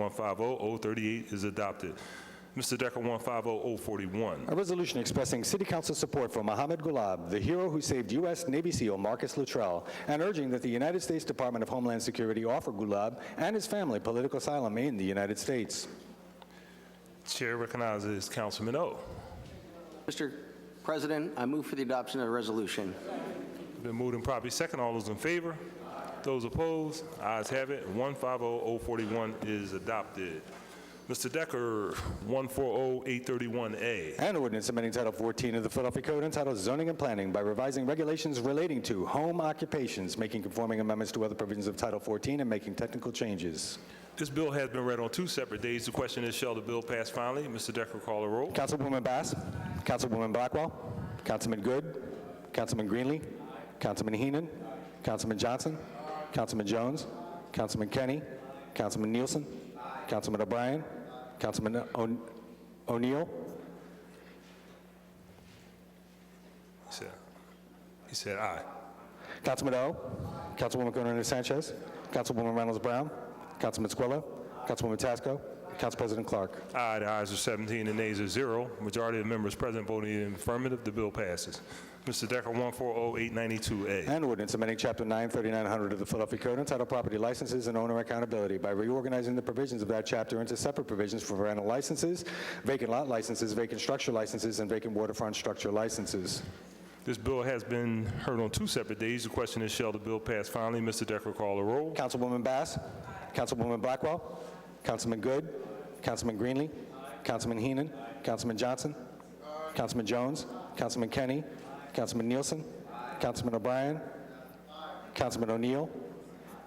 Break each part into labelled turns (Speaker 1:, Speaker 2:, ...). Speaker 1: 150-038 oh, is adopted. Mr. Decker, oh, 150-041.
Speaker 2: A resolution expressing city council support for Mohammed Gulab, the hero who saved U.S. Navy SEAL Marcus Luttrell, and urging that the United States Department of Homeland Security offer Gulab and his family political asylum in the United States.
Speaker 1: Chair recognizes Councilman O.
Speaker 3: Mr. President, I move for the adoption of the resolution.
Speaker 1: Been moved and properly second. All those in favor? Those opposed? Ayes have it. 150-041 is adopted. Mr. Decker, oh, 140-831A.
Speaker 2: And ordinance amending Title 14 of the Philadelphia Code entitled Zoning and Planning by revising regulations relating to home occupations, making conforming amendments to other provisions of Title 14, and making technical changes.
Speaker 1: This bill has been read on two separate days. The question is, shall the bill pass finally? Mr. Decker, call a roll.
Speaker 2: Councilwoman Bass. Councilwoman Blackwell. Councilman Good. Councilman Greenlee. Councilman Heenan. Councilman Johnson. Councilman Jones. Councilman Kenny. Councilman Nielsen. Councilman O'Brien. Councilman O- O'Neill.
Speaker 1: He said- He said aye.
Speaker 2: Councilman O. Councilwoman Gunnarina Sanchez. Councilwoman Reynolds Brown. Councilman Squilla. Councilwoman Tasco. Council President Clark.
Speaker 1: Aye, the ayes are 17 and nays are 0. Majority of members present voting in affirmative, the bill passes. Mr. Decker, 140-892A.
Speaker 2: And ordinance amending Chapter 9, 3900 of the Philadelphia Code entitled Property Licenses and Owner Accountability by reorganizing the provisions of that chapter into separate provisions for rental licenses, vacant lot licenses, vacant structure licenses, and vacant waterfront structure licenses.
Speaker 1: This bill has been heard on two separate days. The question is, shall the bill pass finally? Mr. Decker, call the roll.
Speaker 2: Councilwoman Bass. Councilwoman Blackwell. Councilman Good. Councilman Greenlee. Councilman Heenan. Councilman Johnson. Councilman Jones. Councilman Kenny. Councilman Nielsen. Councilman O'Brien. Councilman O'Neill.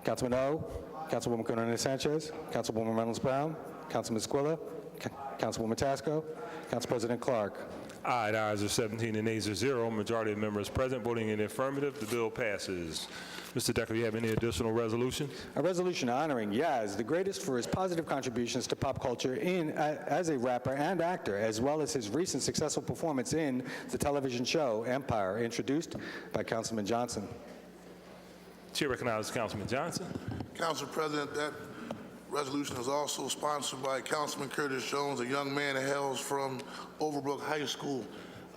Speaker 2: Councilman O. Councilwoman Gunnarina Sanchez. Councilwoman Reynolds Brown. Councilman Squilla. Ca- Councilwoman Tasco. Council President Clark.
Speaker 1: Aye, the ayes are 17 and nays are 0. Majority of members present voting in affirmative, the bill passes. Mr. Decker, you have any additional resolutions?
Speaker 2: A resolution honoring Yaz, the greatest for his positive contributions to pop culture in, a- as a rapper and actor, as well as his recent successful performance in the television show Empire, introduced by Councilman Johnson.
Speaker 1: Chair recognizes Councilman Johnson.
Speaker 4: Council President, that resolution is also sponsored by Councilman Curtis Jones, a young man that hails from Overbrook High School.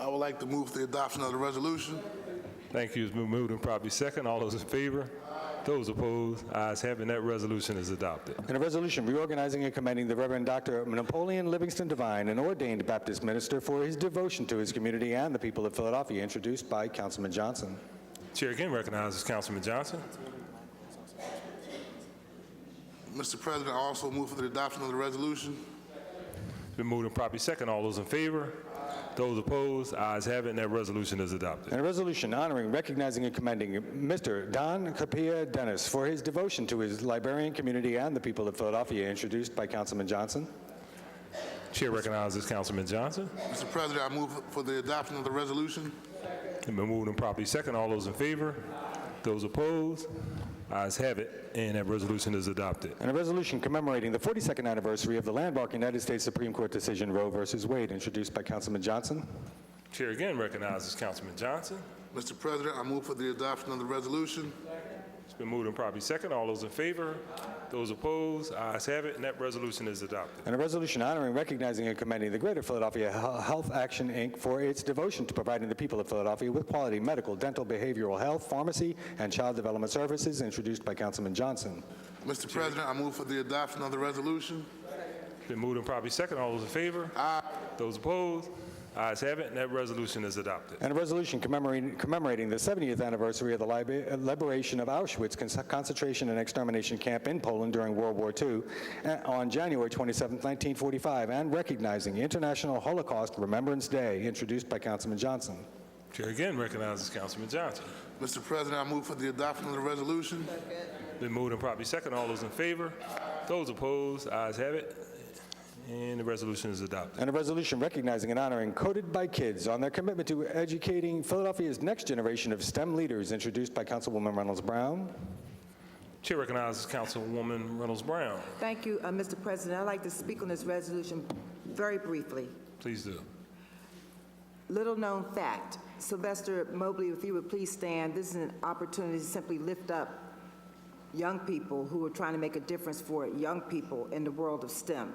Speaker 4: I would like to move for the adoption of the resolution.
Speaker 1: Thank you. It's been moved and properly second. All those in favor? Those opposed? Ayes have it. That resolution is adopted.
Speaker 2: And a resolution reorganizing and commending the Reverend Dr. Napoleon Livingston Divine, an ordained Baptist minister, for his devotion to his community and the people of Philadelphia, introduced by Councilman Johnson.
Speaker 1: Chair again recognizes Councilman Johnson.
Speaker 4: Mr. President, I also move for the adoption of the resolution.
Speaker 1: Been moved and properly second. All those in favor? Those opposed? Ayes have it, and that resolution is adopted.
Speaker 2: And a resolution honoring, recognizing, and commending Mr. Don Capia Dennis for his devotion to his Liberian community and the people of Philadelphia, introduced by Councilman Johnson.
Speaker 1: Chair recognizes Councilman Johnson.
Speaker 4: Mr. President, I move for the adoption of the resolution.
Speaker 1: It's been moved and properly second. All those in favor? Those opposed? Ayes have it, and that resolution is adopted.
Speaker 2: And a resolution commemorating the 42nd anniversary of the landmark United States Supreme Court decision Roe versus Wade, introduced by Councilman Johnson.
Speaker 1: Chair again recognizes Councilman Johnson.
Speaker 4: Mr. President, I move for the adoption of the resolution.
Speaker 1: It's been moved and properly second. All those in favor? Those opposed? Ayes have it, and that resolution is adopted.
Speaker 2: And a resolution honoring, recognizing, and commending the Greater Philadelphia Hel- Health Action, Inc. for its devotion to providing the people of Philadelphia with quality medical, dental, behavioral health, pharmacy, and child development services, introduced by Councilman Johnson.
Speaker 4: Mr. President, I move for the adoption of the resolution.
Speaker 1: Been moved and properly second. All those in favor? Aye. Those opposed? Ayes have it, and that resolution is adopted.
Speaker 2: And a resolution commemorating, commemorating the 70th anniversary of the libe- uh, liberation of Auschwitz con- concentration and extermination camp in Poland during World War II uh, on January 27, 1945, and recognizing International Holocaust Remembrance Day, introduced by Councilman Johnson.
Speaker 1: Chair again recognizes Councilman Johnson.
Speaker 4: Mr. President, I move for the adoption of the resolution.
Speaker 1: Been moved and properly second. All those in favor? Those opposed? Ayes have it. And the resolution is adopted.
Speaker 2: And a resolution recognizing and honoring Coded by Kids on their commitment to educating Philadelphia's next generation of STEM leaders, introduced by Councilwoman Reynolds Brown.
Speaker 1: Chair recognizes Councilwoman Reynolds Brown.
Speaker 5: Thank you, uh, Mr. President. I'd like to speak on this resolution very briefly.
Speaker 1: Please do.
Speaker 5: Little-known fact, Sylvester Mobley, if you would please stand, this is an opportunity to simply lift up young people who are trying to make a difference for young people in the world of STEM.